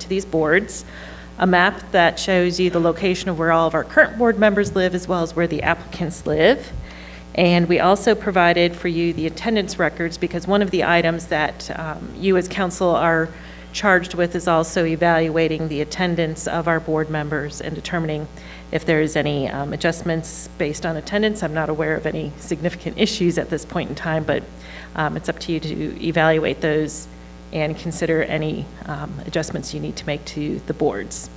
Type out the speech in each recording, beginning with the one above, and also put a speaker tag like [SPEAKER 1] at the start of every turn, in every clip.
[SPEAKER 1] to these boards, a map that shows you the location of where all of our current board members live, as well as where the applicants live. And we also provided for you the attendance records, because one of the items that um, you as council are charged with is also evaluating the attendance of our board members and determining if there is any um, adjustments based on attendance. I'm not aware of any significant issues at this point in time, but um, it's up to you to evaluate those and consider any um, adjustments you need to make to the boards.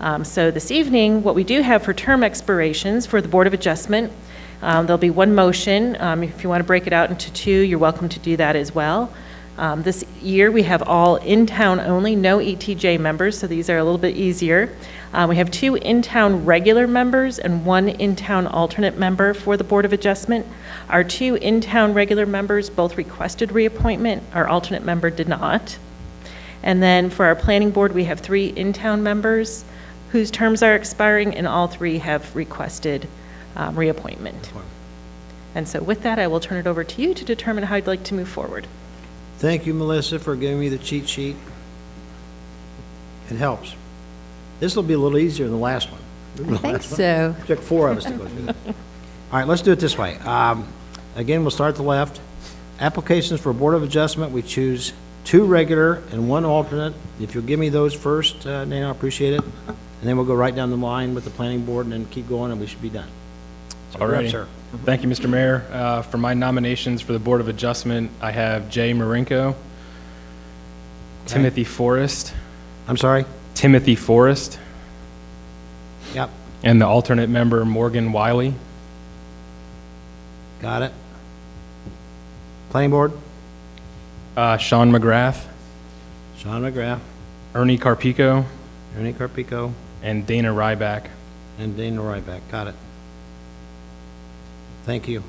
[SPEAKER 1] Um, So this evening, what we do have for term expirations for the Board of Adjustment, um, there'll be one motion. Um, If you want to break it out into two, you're welcome to do that as well. Um, This year, we have all in-town only, no ETJ members, so these are a little bit easier. Uh, We have two in-town regular members and one in-town alternate member for the Board of Adjustment. Our two in-town regular members both requested reappointment, our alternate member did not. And then for our planning board, we have three in-town members whose terms are expiring, and all three have requested um, reappointment. And so with that, I will turn it over to you to determine how you'd like to move forward.
[SPEAKER 2] Thank you, Melissa, for giving me the cheat sheet. It helps. This will be a little easier than the last one.
[SPEAKER 3] I think so.
[SPEAKER 2] Took four of us to go through that. All right, let's do it this way. Um, Again, we'll start at the left. Applications for Board of Adjustment, we choose two regular and one alternate. If you'll give me those first, uh, Dana, I appreciate it. And then we'll go right down the line with the Planning Board and then keep going, and we should be done. So
[SPEAKER 4] All
[SPEAKER 2] you're up,
[SPEAKER 4] right.
[SPEAKER 2] sir.
[SPEAKER 4] Thank you, Mr. Mayor. Uh, For my nominations for the Board of Adjustment, I have Jay Marinko, Timothy Forrest,
[SPEAKER 2] I'm sorry?
[SPEAKER 4] Timothy Forrest,
[SPEAKER 2] Yep,
[SPEAKER 4] and the alternate member Morgan Wiley.
[SPEAKER 2] got it. Planning Board,
[SPEAKER 4] Uh, Sean McGrath,
[SPEAKER 2] Sean McGrath,
[SPEAKER 4] Ernie Carpico,
[SPEAKER 2] Ernie Carpico,
[SPEAKER 4] and Dana Ryback.
[SPEAKER 2] and Dana Ryback. Got it. Thank you.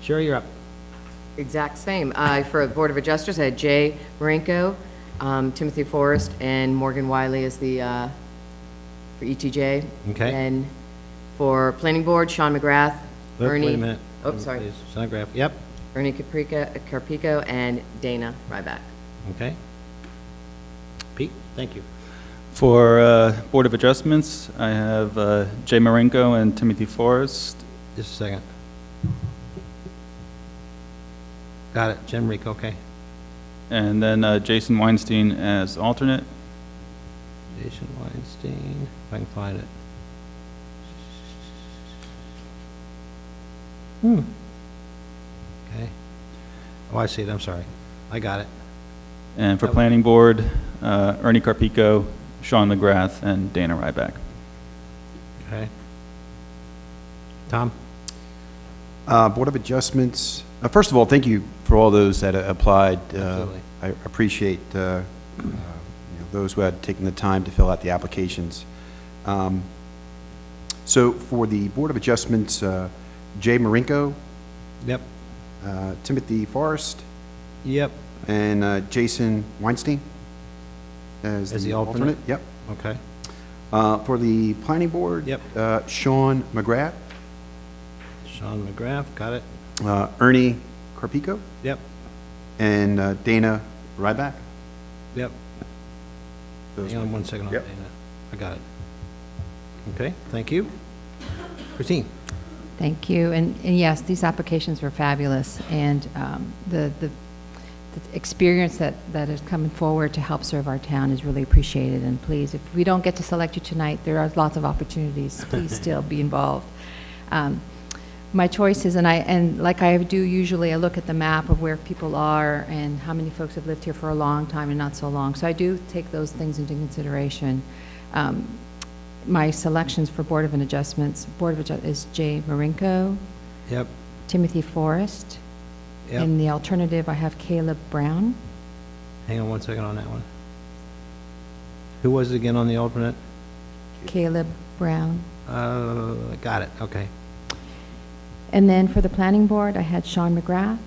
[SPEAKER 2] Sherry, you're up.
[SPEAKER 5] Exact same. I- For the Board of Adjusters, I had Jay Marinko, um, Timothy Forrest, and Morgan Wiley as the, uh, for ETJ.
[SPEAKER 2] Okay.
[SPEAKER 5] And for Planning Board, Sean McGrath,
[SPEAKER 2] Look,
[SPEAKER 5] Ernie.
[SPEAKER 2] Wait a minute.
[SPEAKER 5] Oh, sorry.
[SPEAKER 2] Sean McGrath, yep,
[SPEAKER 5] Ernie Caprica- Carpico and Dana Ryback.
[SPEAKER 2] okay. Pete, thank you.
[SPEAKER 6] For uh, Board of Adjustments, I have uh, Jay Marenko and Timothy Forrest.
[SPEAKER 2] Just a second. Got it, Jim Rico, okay.
[SPEAKER 6] And then uh, Jason Weinstein as alternate.
[SPEAKER 2] Jason Weinstein, if I can find it. Hmm. Okay. Oh, I see it, I'm sorry. I got it.
[SPEAKER 6] And for Planning Board, uh, Ernie Carpico, Sean McGrath, and Dana Ryback.
[SPEAKER 2] Okay. Tom?
[SPEAKER 7] Uh, Board of Adjustments, uh, first of all, thank you for all those that uh, applied. Uh,
[SPEAKER 2] Absolutely.
[SPEAKER 7] I appreciate uh, uh, you know, those who had taken the time to fill out the applications. Um, So for the Board of Adjustments, uh, Jay Marinko,
[SPEAKER 2] Yep.
[SPEAKER 7] uh, Timothy Forrest,
[SPEAKER 2] Yep.
[SPEAKER 7] and uh, Jason Weinstein as
[SPEAKER 2] As
[SPEAKER 7] the
[SPEAKER 2] the alternate?
[SPEAKER 7] alternate. Yep.
[SPEAKER 2] Okay.
[SPEAKER 7] Uh, For the Planning Board?
[SPEAKER 2] Yep.
[SPEAKER 7] uh, Sean McGrath,
[SPEAKER 2] Sean McGrath, got it.
[SPEAKER 7] uh, Ernie Carpico,
[SPEAKER 2] Yep,
[SPEAKER 7] and uh, Dana Ryback.
[SPEAKER 2] yep.
[SPEAKER 7] Those
[SPEAKER 2] Hang on one second. I'll-
[SPEAKER 7] Yep.
[SPEAKER 2] I got it. Okay, thank you. Christine?
[SPEAKER 3] Thank you. And, and yes, these applications were fabulous, and um, the, the the experience that, that is coming forward to help serve our town is really appreciated, and please, if we don't get to select you tonight, there are lots of opportunities. Please still be involved. Um, My choices, and I, and like I do usually, I look at the map of where people are and how many folks have lived here for a long time and not so long, so I do take those things into consideration. Um, my selections for Board of an Adjustments, Board of Adjust, is Jay Marinko,
[SPEAKER 2] Yep,
[SPEAKER 3] Timothy Forrest,
[SPEAKER 2] yep.
[SPEAKER 3] and the alternative, I have Caleb Brown.
[SPEAKER 2] Hang on one second on that one. Who was it again on the alternate?
[SPEAKER 3] Caleb Brown.
[SPEAKER 2] Uh, got it, okay.
[SPEAKER 3] And then for the Planning Board, I had Sean McGrath,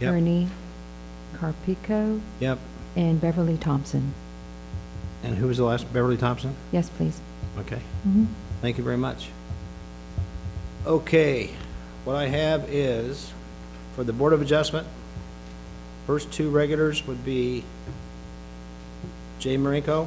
[SPEAKER 2] Yep.
[SPEAKER 3] Ernie Carpico,
[SPEAKER 2] Yep.
[SPEAKER 3] and Beverly Thompson.
[SPEAKER 2] And who was the last, Beverly Thompson?
[SPEAKER 3] Yes, please.
[SPEAKER 2] Okay.
[SPEAKER 3] Mhm.
[SPEAKER 2] Thank you very much. Okay, what I have is, for the Board of Adjustment, first two regulars would be Jay Marinko